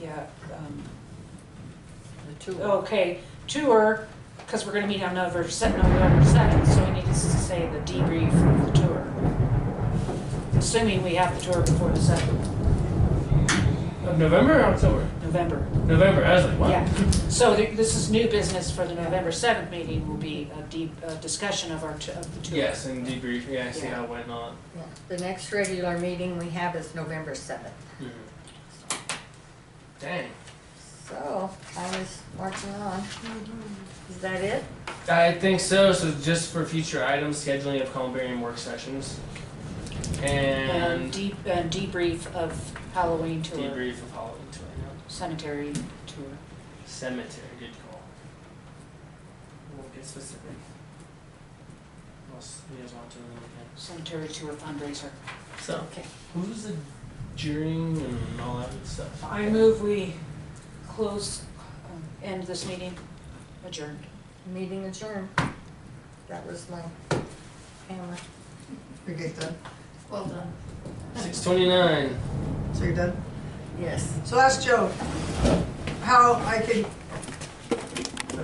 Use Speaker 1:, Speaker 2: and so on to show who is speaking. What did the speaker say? Speaker 1: yeah, um,
Speaker 2: The two.
Speaker 1: okay, tour, because we're gonna meet on November se- November second, so we need to s- say the debrief of the tour. Assuming we have the tour before the second,
Speaker 3: Of November or October?
Speaker 1: November,
Speaker 3: November. I was like, what?
Speaker 1: yeah. So th- this is new business for the November seventh meeting will be a deep, a discussion of our, t- of the tour.
Speaker 3: Yes, and debrief. Yeah, I see how it went on.
Speaker 2: Yeah. The next regular meeting we have is November seventh.
Speaker 3: Hmm. Dang.
Speaker 2: So I was marching on. Is that it?
Speaker 3: I think so. So just for future items, scheduling of columbarium work sessions,
Speaker 1: And
Speaker 3: and
Speaker 1: deep, and debrief of Halloween tour,
Speaker 3: debrief of Halloween tour. yeah.
Speaker 1: cemetery tour.
Speaker 3: Cemetery. Good call. We'll get specific. What else you guys want to do in the weekend?
Speaker 1: cemetery tour fundraiser.
Speaker 3: So,
Speaker 2: Okay.
Speaker 3: who's the jurying and all that good stuff?
Speaker 1: I move we close, um, end this meeting, adjourned.
Speaker 2: Meeting adjourned. That was my hammer.
Speaker 4: You're good then.
Speaker 2: Well done.
Speaker 3: Six twenty nine.
Speaker 4: So you're done?
Speaker 2: Yes.
Speaker 4: So ask Joe how I can